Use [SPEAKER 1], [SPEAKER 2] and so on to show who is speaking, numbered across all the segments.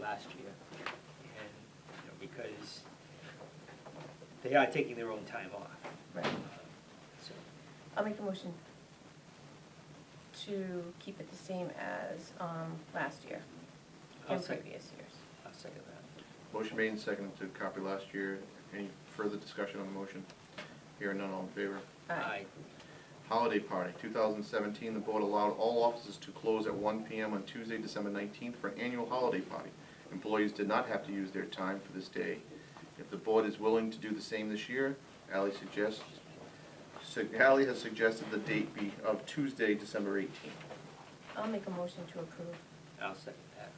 [SPEAKER 1] last year. And, you know, because they are taking their own time off.
[SPEAKER 2] Right.
[SPEAKER 1] Um, So,
[SPEAKER 3] I'll make a motion to keep it the same as um, last year
[SPEAKER 1] I'll
[SPEAKER 3] and
[SPEAKER 1] second,
[SPEAKER 3] previous years.
[SPEAKER 1] I'll second that.
[SPEAKER 2] Motion made and seconded to copy last year. Any further discussion on the motion? Here none, all in favor?
[SPEAKER 3] Aye.
[SPEAKER 2] Holiday party, 2017, the board allowed all offices to close at 1 PM on Tuesday, December 19th for an annual holiday party. Employees did not have to use their time for this day. If the board is willing to do the same this year, Ally suggests, sug- Ally has suggested the date be of Tuesday, December 18th.
[SPEAKER 3] I'll make a motion to approve.
[SPEAKER 1] I'll second that.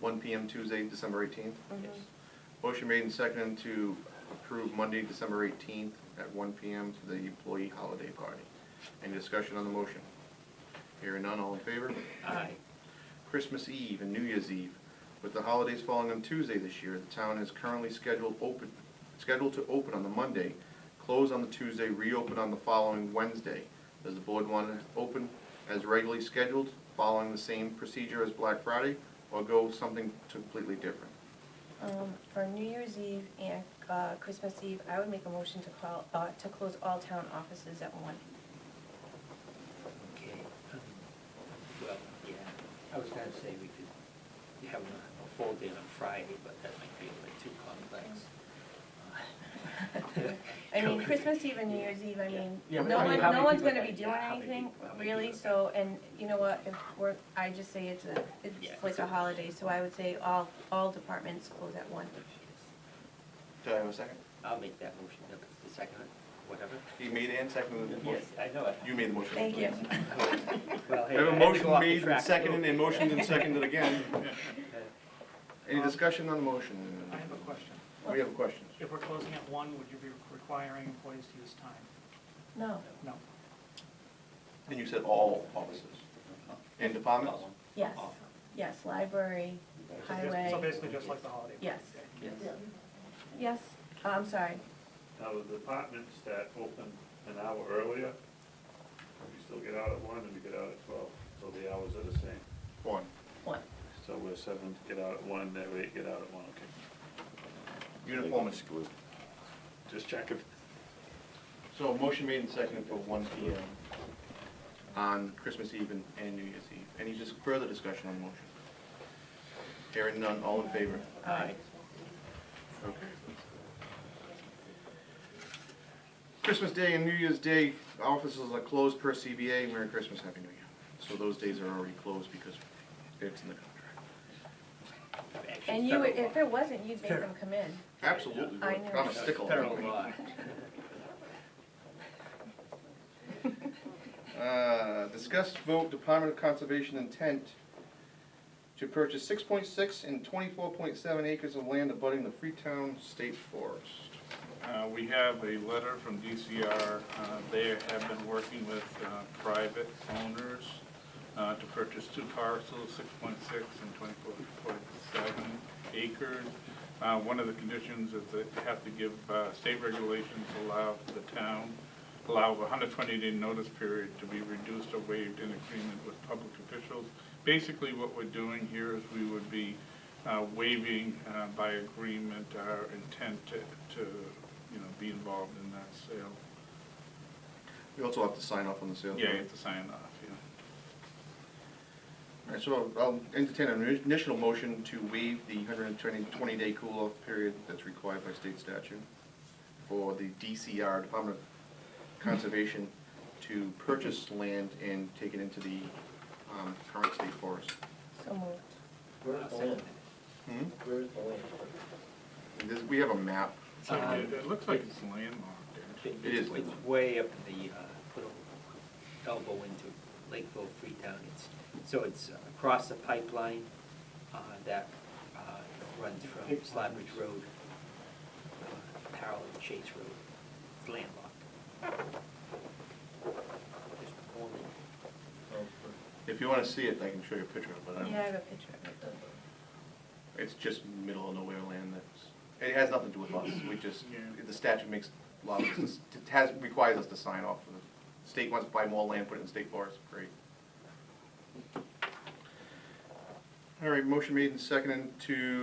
[SPEAKER 2] 1 PM Tuesday, December 18th.
[SPEAKER 3] Mm-hmm.
[SPEAKER 1] Yes.
[SPEAKER 2] Motion made and seconded to approve Monday, December 18th at 1 PM for the employee holiday party. Any discussion on the motion? Hearing none, all in favor?
[SPEAKER 1] Aye.
[SPEAKER 2] Christmas Eve and New Year's Eve. With the holidays falling on Tuesday this year, the town is currently scheduled open, scheduled to open on the Monday, close on the Tuesday, reopen on the following Wednesday. Does the board want to open as regularly scheduled, following the same procedure as Black Friday, or go something completely different?
[SPEAKER 3] Um, For New Year's Eve and uh, Christmas Eve, I would make a motion to call, uh, to close all town offices at one.
[SPEAKER 1] Okay. um, Well, yeah, I was gonna say we could have a full day on Friday, but that might be a bit too complex.
[SPEAKER 3] I mean, Christmas Eve and New Year's Eve, I
[SPEAKER 1] Yeah.
[SPEAKER 3] mean,
[SPEAKER 1] Yeah, but
[SPEAKER 3] no
[SPEAKER 2] I mean,
[SPEAKER 3] one,
[SPEAKER 1] how
[SPEAKER 3] no
[SPEAKER 1] many
[SPEAKER 3] one's
[SPEAKER 1] people
[SPEAKER 3] gonna
[SPEAKER 1] are
[SPEAKER 3] be
[SPEAKER 1] there?
[SPEAKER 3] doing
[SPEAKER 1] Yeah, how many
[SPEAKER 3] anything,
[SPEAKER 1] people- how many
[SPEAKER 3] really,
[SPEAKER 1] people are
[SPEAKER 3] so, and you know what, if we're, I just say it's a,
[SPEAKER 1] Yeah.
[SPEAKER 3] it's like a holiday, so I would say all, all departments close at one.
[SPEAKER 2] Do I have a second?
[SPEAKER 1] I'll make that motion, if it's the second, whatever.
[SPEAKER 2] He made and seconded the
[SPEAKER 1] Yes,
[SPEAKER 2] motion.
[SPEAKER 1] I know it.
[SPEAKER 2] You made the motion.
[SPEAKER 3] Thank you.
[SPEAKER 1] Well,
[SPEAKER 2] I
[SPEAKER 1] hey,
[SPEAKER 2] have
[SPEAKER 1] had
[SPEAKER 2] a
[SPEAKER 1] to
[SPEAKER 2] motion
[SPEAKER 1] go off the
[SPEAKER 2] made and
[SPEAKER 1] track a
[SPEAKER 2] seconded
[SPEAKER 1] little
[SPEAKER 2] and
[SPEAKER 1] bit. Uh,
[SPEAKER 2] motioned and seconded again. Any
[SPEAKER 4] Um,
[SPEAKER 2] discussion on the motion?
[SPEAKER 4] I have a question.
[SPEAKER 2] We have a question.
[SPEAKER 4] If we're closing at one, would you be requiring employees to use time?
[SPEAKER 3] No,
[SPEAKER 4] No.
[SPEAKER 2] And you said all offices and departments?
[SPEAKER 3] yes,
[SPEAKER 1] Awesome.
[SPEAKER 3] yes, library,
[SPEAKER 4] So just- So
[SPEAKER 3] highway,
[SPEAKER 4] basically just like the holiday.
[SPEAKER 3] yes,
[SPEAKER 1] Yes.
[SPEAKER 3] yes, Uh, I'm sorry,
[SPEAKER 5] Now, the departments that open an hour earlier, we still get out at one and we get out at twelve, so the hours are the same.
[SPEAKER 2] One.
[SPEAKER 3] one,
[SPEAKER 5] So we're seven, get out at one, they're eight, get out at one, okay.
[SPEAKER 2] Uniform is
[SPEAKER 6] excluded.
[SPEAKER 5] Just checking.
[SPEAKER 2] So a motion made and seconded for one P M on Christmas Eve and- and New Year's Eve. Any just further discussion on the motion? Hearing none, all in favor?
[SPEAKER 1] Aye.
[SPEAKER 2] Okay. Christmas Day and New Year's Day, offices are closed per CBA, Merry Christmas, Happy New Year. So those days are already closed because it's in the contract.
[SPEAKER 1] Actually,
[SPEAKER 3] and you, would
[SPEAKER 1] federal
[SPEAKER 3] if it wasn't, you'd make them come in,
[SPEAKER 2] Absolutely,
[SPEAKER 3] I know.
[SPEAKER 2] I'm
[SPEAKER 1] law.
[SPEAKER 2] a stickler.
[SPEAKER 1] Federal law.
[SPEAKER 2] Uh, discuss vote Department of Conservation intent to purchase six point six and twenty-four point seven acres of land abutting the Freetown State Forest.
[SPEAKER 7] Uh, We have a letter from DCR. Uh, They have been working with uh, private owners uh, to purchase two parcels, 6.6 and 24.7 acres. Uh, One of the conditions is that they have to give, uh, state regulations allow the town, allow a 120-day notice period to be reduced or waived in agreement with public officials. Basically, what we're doing here is we would be uh, waiving uh, by agreement our intent to, to, you know, be involved in that sale.
[SPEAKER 2] You also have to sign off on the sale.
[SPEAKER 7] Yeah, you have to sign off, yeah.
[SPEAKER 2] Alright, so I'll entertain an initial motion to waive the hundred and twenty, twenty day cool-off period that's required by state statute for the DCR, Department of Conservation, to purchase land and take it into the, um, current state forest.
[SPEAKER 3] so moved.
[SPEAKER 1] I'll second that.
[SPEAKER 2] Hmm? This, we have a map.
[SPEAKER 7] So
[SPEAKER 1] Um,
[SPEAKER 7] it- it looks like it's landlocked, actually.
[SPEAKER 2] It is
[SPEAKER 1] It's
[SPEAKER 2] Lakeville.
[SPEAKER 1] way up in the, uh, little elbow into Lakeville, Freetown. It's, so it's across the pipeline, uh, that, uh, runs from Slabridge Road, uh, parallel to Chase Road. It's landlocked. Just normally,
[SPEAKER 2] If you wanna see it, I can show you a picture of it, but I
[SPEAKER 3] Yeah, I
[SPEAKER 2] don't,
[SPEAKER 3] have a picture of it.
[SPEAKER 2] it's just middle of nowhere land that's, it has nothing to do with us, we just,
[SPEAKER 7] Yeah.
[SPEAKER 2] the statute makes a lot of, it has, requires us to sign off for the state wants to buy more land, put it in state forest, great. All right, motion made and seconded to